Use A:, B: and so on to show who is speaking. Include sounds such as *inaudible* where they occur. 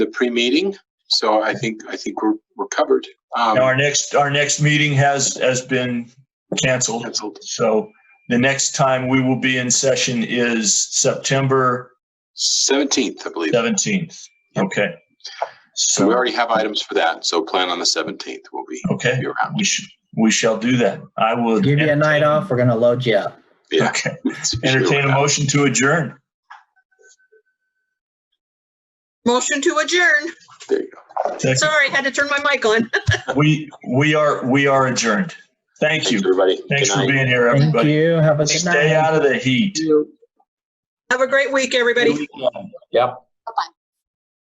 A: the pre-meeting. So I think, I think we're, we're covered. Um,
B: Now, our next, our next meeting has, has been canceled.
A: canceled.
B: So the next time we will be in session is September
A: 17th, I believe.
B: 17th. Okay.
A: So we
B: So,
A: already have items for that. So plan on the 17th. We'll be,
B: okay,
A: be around.
B: we should, we shall do that. I will.
C: Give you a night off, we're gonna load you up.
A: Yeah. *laughs*
B: Okay.
A: It's-
B: Entertain a motion to adjourn.
D: Motion to adjourn.
A: There you go.
B: Second.
D: Sorry, had to turn my mic on. *laughs*
B: We, we are, we are adjourned. Thank
A: Thanks,
B: you.
A: everybody.
B: Thanks
A: Good
B: for
A: night.
B: being here,
C: Thank
B: everybody.
C: you. Have a good night.
B: Stay out of the heat.
D: Have a great week, everybody.
B: Good weekend.
D: Bye-bye.